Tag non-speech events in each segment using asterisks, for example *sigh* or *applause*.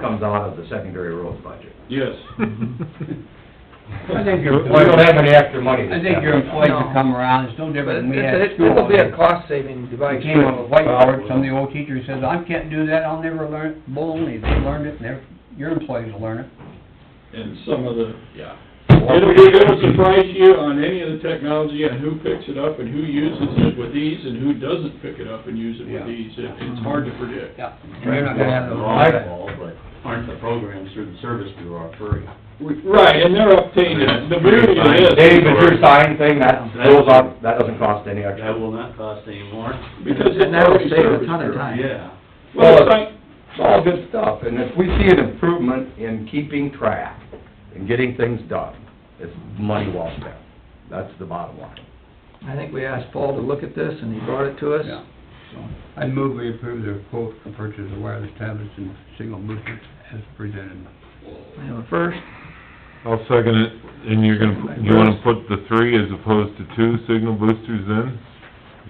comes out of the secondary roads budget. Yes. I think your We don't employees, have any extra money this I think your time. employees will come around, it's no different than we had at It- school. It'll be a cost-saving We device. came up with whiteboard, some of the old teacher says, I can't do that, I'll never learn, it." bull, they learned it, and their, your employees will learn it. And some of the, Yeah. it'll, it'll surprise you on any of the technology and who picks it up and who uses it with ease and who doesn't pick it up and use it Yeah. with ease. It, it's hard to predict. Yeah. And you're not gonna have those. but aren't the programs through the service bureau free? Right, and they're updated, the beauty of it is. Dave, is your sign thing, that goes up, that doesn't cost any That extra. will not cost any more. Because it's And that'll already save a serviced ton of through. time. Yeah. Well, it's like, It's all good stuff, and if we see an improvement in keeping track and getting things done, it's money well spent. That's the bottom line. I think we asked Paul to look at this, and he brought it to us. Yeah. So, I move we approve the quote for purchase of wireless tablets and signal boosters as presented. We have a first, I'll second it, and you're gonna, you wanna put the three as opposed to two signal boosters in?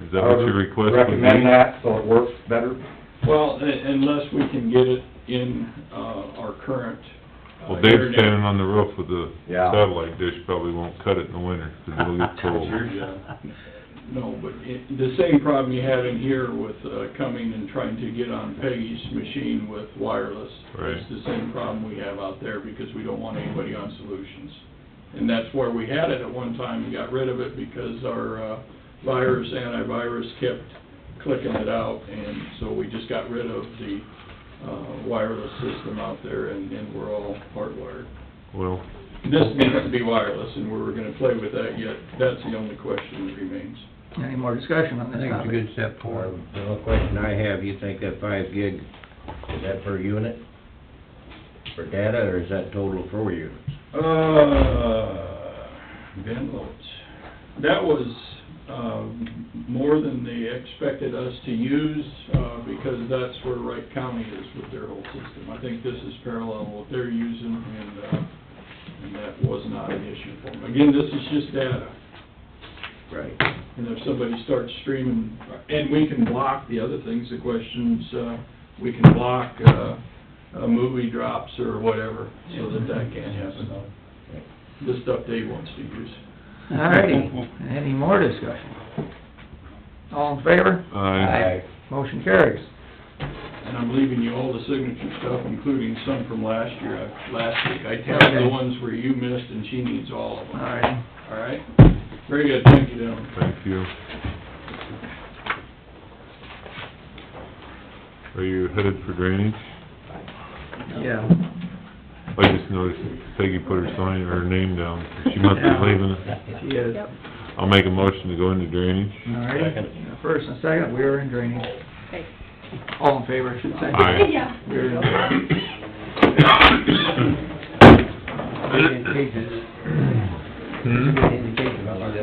Is that what your request would be? Recommend that, so it works better. well, un- unless we can get it in, uh, our current. uh, Well, Dave's internet. standing on the roof with the Yeah. satellite dish, probably won't cut it in the winter, 'cause it'll *laughs* get That's your cold. job. No, but it, the same problem you have in here with, uh, coming and trying to get on Peggy's machine with wireless. Right. It's the same problem we have out there because we don't want anybody on solutions. And that's where we had it at one time and got rid of it because our, uh, virus, antivirus kept clicking it out. And so we just got rid of the, uh, wireless system out there and, and we're all hardwired. Well, This needs to be wireless and we were gonna play with that yet. That's the only question that remains. any more discussion on I this think it's a topic? good step forward. The only question I have, you think that five gig, is that per unit? For data, or is that total for units? Uh, Ben Lopes. That was, um, more than they expected us to use, uh, because that's where Wright County is with their whole system. I think this is parallel what they're using, and, uh, and that was not an issue for them. Again, this is just data, Right. and if somebody starts streaming, and we can block the other things, the questions, uh, we can block, uh, uh, movie drops or whatever, so that that can't happen. the stuff Dave wants to use. All righty, any more discussion? All in favor? I, Motion carries. And I'm leaving you all the signature stuff, including some from last year, I- last week. I tabbed Okay. the ones where you missed, and she needs all of All them, righty. all right? Very good, thank you, gentlemen. thank you. Are you headed for drainage? Yeah. I just noticed Peggy put her sign, her name down, she must be Yeah. leaving. She is. Yep. I'll make a motion to go *laughs* into drainage. All righty. Second. First and second, we are in drainage. Okay. All in favor, I should say. Aye. *laughs* Yeah. We are in- Good indication, Hmm? good indication about that.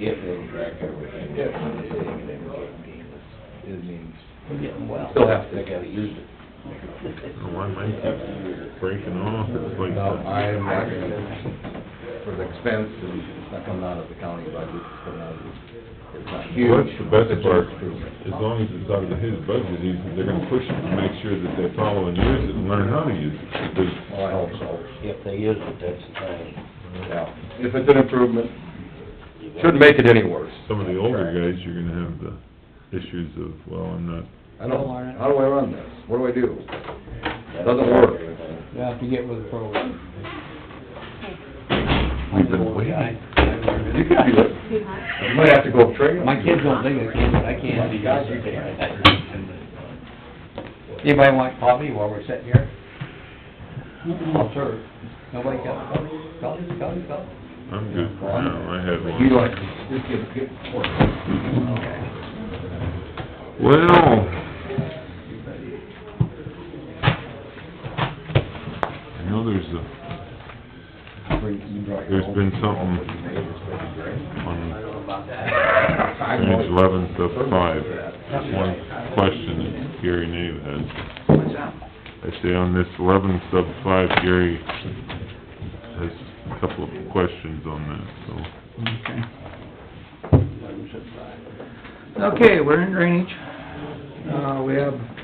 If they track everything. Yeah. It means. Still have to. They gotta use it. Oh, why am I breaking off? It's like No, that. I am not gonna, for the expense, and it's not coming out of the county budget, it's coming out of, it's not huge. Well, That's the best it's part, just improvement. as long as it's out of his budget, he's, they're gonna push it to make sure that they follow and use it and learn how to use it, because Well, I hope so, If they use it, that's the thing. yeah. If it's an improvement, shouldn't make it any worse. some of the older guys, you're gonna have the issues of, well, I'm not, I don't, how do I run this? What do I do? Doesn't work. You have to get with the program. we've been waiting. You could do it, you might have to go train. My kids don't think I can, but I can. Anybody want coffee while we're sitting here? I'll serve. Nobody got coffee? Coffee, coffee, coffee? I'm good for now, I have You don't, one. just get, get, Well. I know there's a, there's been something on Page eleven, sub five, one question that Gary Nave has. What's up? I say on this eleven, sub five, Gary has a couple of questions on that, Okay. Okay, we're in drainage. Uh, we have